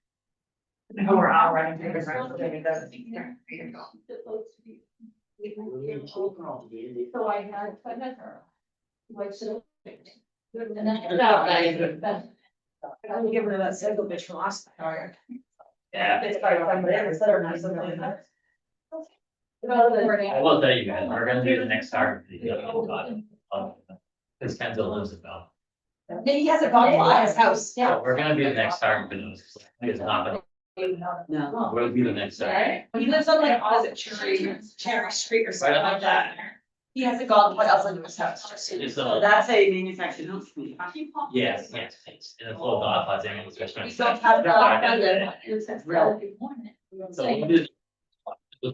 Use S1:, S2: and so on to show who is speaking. S1: who are out running through the ground, it doesn't.
S2: Supposed to be. So I had, I met her. What's the? And I.
S1: No, I-
S2: I would give her that single bitch from last. time.
S3: Yeah.
S1: Oh, It's probably one of them, it's better than something else.
S2: Well, then-
S3: I will tell you guys, we're gonna do the next target. for the other one, um, Cause Kenzo lives in Bell.
S1: He hasn't gone by his house.
S3: So Oh, we're gonna do the next target for those. It's not,
S4: No.
S3: but we'll do the next target.
S1: He lives on like, was it Cherry, Cherry Street or something like that. He hasn't gone, what else into his house?
S3: It's
S4: So
S3: a,
S4: that's a manufactured house. company.
S3: yes, yes, it's in a full dog, I think, it's just.
S1: We don't have.
S3: Yeah.
S1: that.
S2: It's a Saturday morning.
S3: So we'll do the